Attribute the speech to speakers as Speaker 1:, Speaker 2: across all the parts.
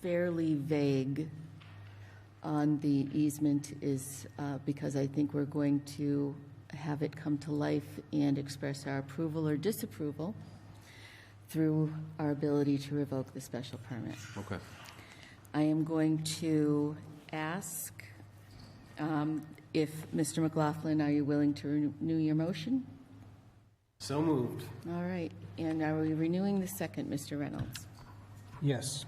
Speaker 1: fairly vague on the easement is uh, because I think we're going to have it come to life and express our approval or disapproval through our ability to revoke the special permit.
Speaker 2: Okay.
Speaker 1: I am going to ask um, if, Mr. McLaughlin, are you willing to renew your motion?
Speaker 2: So moved.
Speaker 1: All right, and are we renewing the second, Mr. Reynolds?
Speaker 3: Yes.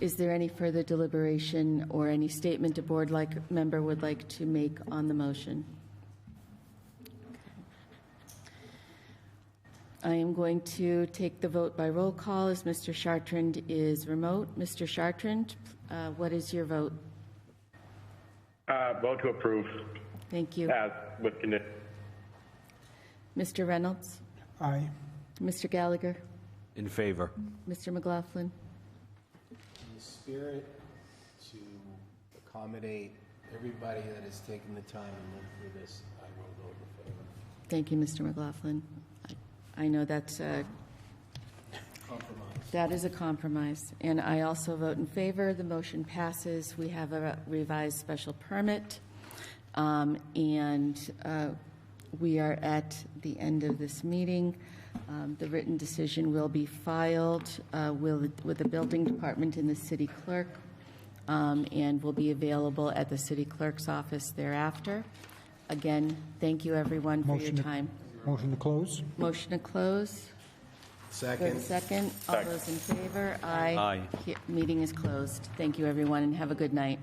Speaker 1: Is there any further deliberation or any statement a board like, member would like to make on the motion? I am going to take the vote by roll call as Mr. Chartrand is remote. Mr. Chartrand, uh, what is your vote?
Speaker 4: Uh, vote to approve
Speaker 1: Thank you.
Speaker 4: as with condition.
Speaker 1: Mr. Reynolds?
Speaker 3: Aye.
Speaker 1: Mr. Gallagher?
Speaker 2: In favor.
Speaker 1: Mr. McLaughlin?
Speaker 5: in the spirit to accommodate everybody that has taken the time and lived through this, I will vote in favor.
Speaker 1: Thank you, Mr. McLaughlin. I- I know that's a... Compromise. That is a compromise. And I also vote in favor. The motion passes. We have a revised special permit. Um, And uh, we are at the end of this meeting. Um, The written decision will be filed uh, will- with the building department and the city clerk um, and will be available at the city clerk's office thereafter. Again, thank you, everyone, for your
Speaker 3: Motion to-
Speaker 1: time.
Speaker 3: Motion to close?
Speaker 1: Motion to close.
Speaker 5: Second.
Speaker 1: Second. All those in favor? Aye.
Speaker 2: Aye.
Speaker 1: He- Meeting is closed. Thank you, everyone, and have a good night.